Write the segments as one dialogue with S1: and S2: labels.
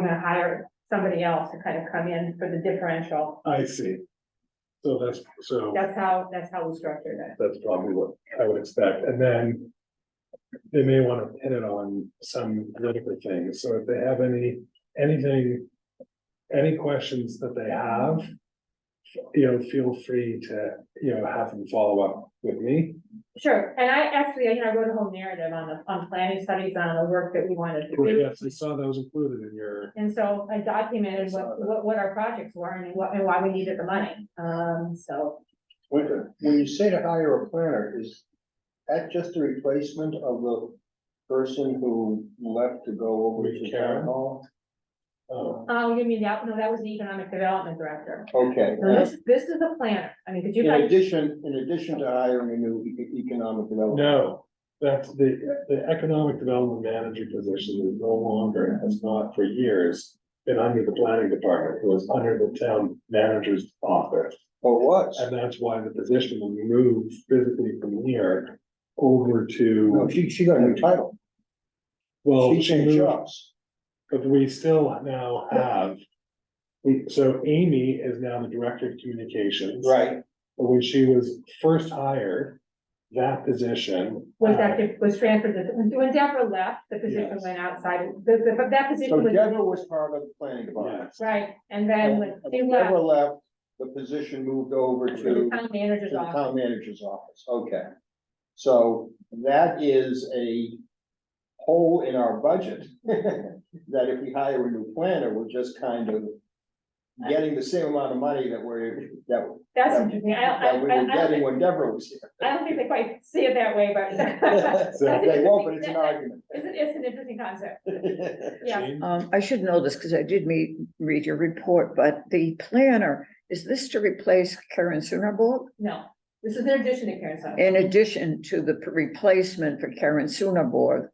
S1: gonna hire somebody else to kind of come in for the differential.
S2: I see. So that's, so
S1: That's how, that's how we structured it.
S2: that's probably what I would expect, and then. They may wanna pin it on some political thing, so if they have any, anything. Any questions that they have. You know, feel free to, you know, have them follow up with me.
S1: Sure, and I actually, you know, I wrote a whole narrative on the, on planning studies on the work that we wanted to do.
S2: Yes, I saw that was included in your,
S1: And so I documented what, what, what our projects were and what, and why we needed the money, um, so.
S3: When, when you say to hire a planner, is that just a replacement of the person who left to go over to town
S2: Karen?
S3: hall?
S2: um,
S1: Oh, you mean that, no, that was the economic development director.
S3: Okay,
S1: No, this, this is the planner, I mean, could you
S3: in
S1: guys,
S3: addition, in addition to hiring a new e- economic development.
S2: no. That's the, the economic development manager position is no longer, has not for years. Been under the planning department, it was under the town manager's office.
S3: Or what?
S2: And that's why the position will move physically from here over
S3: No,
S2: to,
S3: Oh, she, she got a new title.
S2: well,
S3: She
S2: she
S3: changed
S2: moved,
S3: jobs.
S2: but we still now have. We, so Amy is now the director of communications.
S3: Right,
S2: But When she was first hired, that position.
S1: was
S2: uh,
S1: that, was transferred, to- when when Deborah left, the position
S2: Yes.
S1: went outside, the, the, but that
S3: so
S1: position was,
S3: Deborah was part of the planning department.
S2: yes.
S1: right, and then when
S3: And
S1: she left,
S3: Deborah left, the position moved over to.
S1: the town
S3: To
S1: manager's
S3: the
S1: office.
S3: town manager's office, okay. So that is a hole in our budget. That if we hire a new planner, we're just kind of getting the same amount of money that we're, that,
S1: That's interesting, I, I, I,
S3: that we were
S1: I don't
S3: getting
S1: think-
S3: when Deborah was here.
S1: I don't think they quite see it that way, but. that's an
S3: They won't, but it's
S1: interesting-
S3: an argument.
S1: It's, an- it's an interesting concept, yeah.
S2: Jean?
S4: Um, I should know this because I did meet, read your report, but the planner, is this to replace Karen Sunderbook?
S1: No, this is their addition to Karen Sutter.
S4: In addition to the p- replacement for Karen Sunderbook?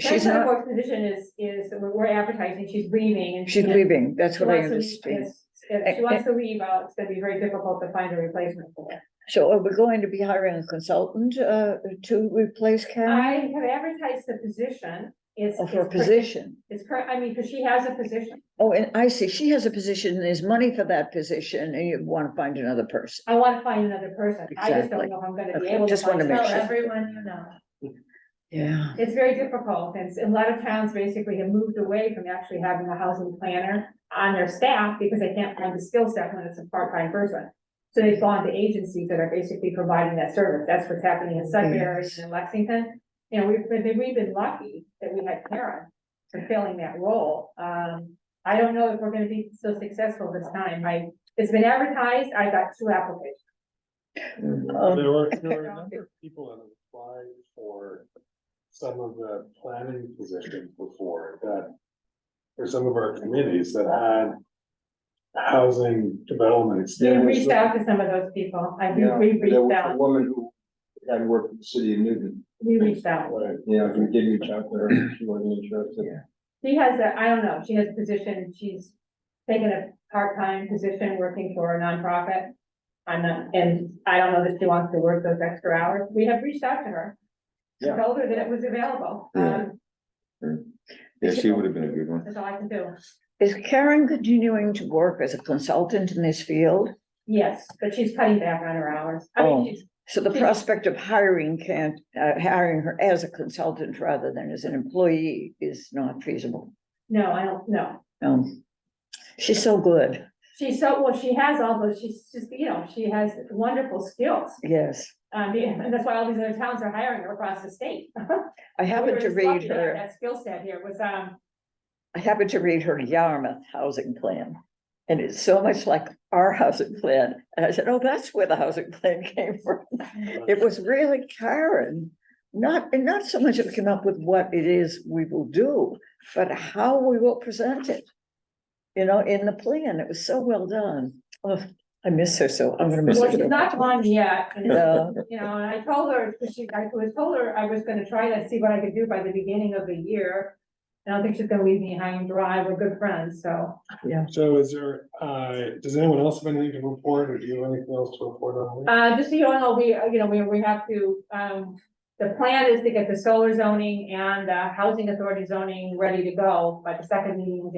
S1: Karen
S4: She's not,
S1: Sutterworth's position is, is, that we're we're advertising, she's leaving and.
S4: she's leaving, that's
S1: She
S4: what I
S1: wants to leave-
S4: understand.
S1: yes,
S4: Eh,
S1: If she wants to leave out, it's gonna be very difficult to find a replacement for her.
S4: So are we going to be hiring a consultant, uh, to replace Karen?
S1: I have advertised the position, it's.
S4: Or Oh, for a
S1: it's cur-
S4: position?
S1: It's current, I mean, because she has a position,
S4: Oh, and I see, she has a position, there's money for that position, and you want to find another person.
S1: I wanna find another person, I just don't
S4: Exactly.
S1: know if I'm gonna be
S4: Okay,
S1: able to.
S4: just wanna
S1: find
S4: make
S1: someone.
S4: sure.
S1: Everyone you know.
S4: Yeah,
S1: It's very difficult, and s- a lot of towns basically have moved away from actually having a housing planner on their staff because they can't find the skill set when it's a part-time person. So they've gone to agencies that are basically providing that service, that's what's happening in Sudbury and in Lexington. You know, we've, been- we've been lucky that we had Karen fulfilling that role, um, I don't know if we're gonna be so successful this time, I, it's been advertised, I got two applicants.
S4: um,
S2: There were, there were a number of people that applied for some of the planning positions before that. For some of our committees that had housing development.
S1: We
S3: There was
S1: reached
S3: a-
S1: out to some of those people, I, we
S3: Yeah,
S1: we
S3: There
S1: reached
S3: was a
S1: out,
S3: woman who had worked in the city of Newton,
S1: we reached out.
S2: Right.
S3: you know, who did reach out to her, she wasn't interested.
S1: She has a, I don't know, she has a position, she's taken a part-time position working for a nonprofit. I'm not, and I don't know that she wants to work those extra hours. We have reached out to her. We
S3: Yeah.
S1: Told her that it was available. Um,
S5: Yeah, she would have been a good one.
S1: that's all I can do.
S4: is Karen continuing to work as a consultant in this field?
S1: Yes, but she's cutting back on her hours. I mean,
S4: Oh.
S1: she's,
S4: So the
S1: Yes.
S4: prospect of hiring can't, uh, hiring her as a consultant rather than as an employee is not feasible.
S1: no, I don't, no.
S4: Um, she's so good,
S1: She's so, well, she has all those, she's just, you know, she has wonderful skills.
S4: yes.
S1: Um, yeah, and that's why all these other towns are hiring her across the state.
S4: I happened to read her,
S1: That skill set here was, um,
S4: I happened to read her Yarmouth housing plan. And it's so much like our housing plan. And I said, oh, that's where the housing plan came from. It was really Karen. Not, and not so much of came up with what it is we will do, but how we will present it. You know, in the plan, it was so well done. Oh, I miss her so, I'm gonna miss
S1: well, she's
S4: her.
S1: not gone yet. and
S4: Yeah,
S1: You know, and I told her, 'cause she, I was told her I was gonna try to see what I could do by the beginning of the year. And I don't think she's gonna leave me high and dry, we're good friends, so.
S2: So is there, uh, does anyone else have anything to report or do you have anything else to report on?
S1: Uh, just so you all know, we, uh, you know, we, we have to, um, the plan is to get the solar zoning and, uh, housing authority zoning ready to go by the second meeting in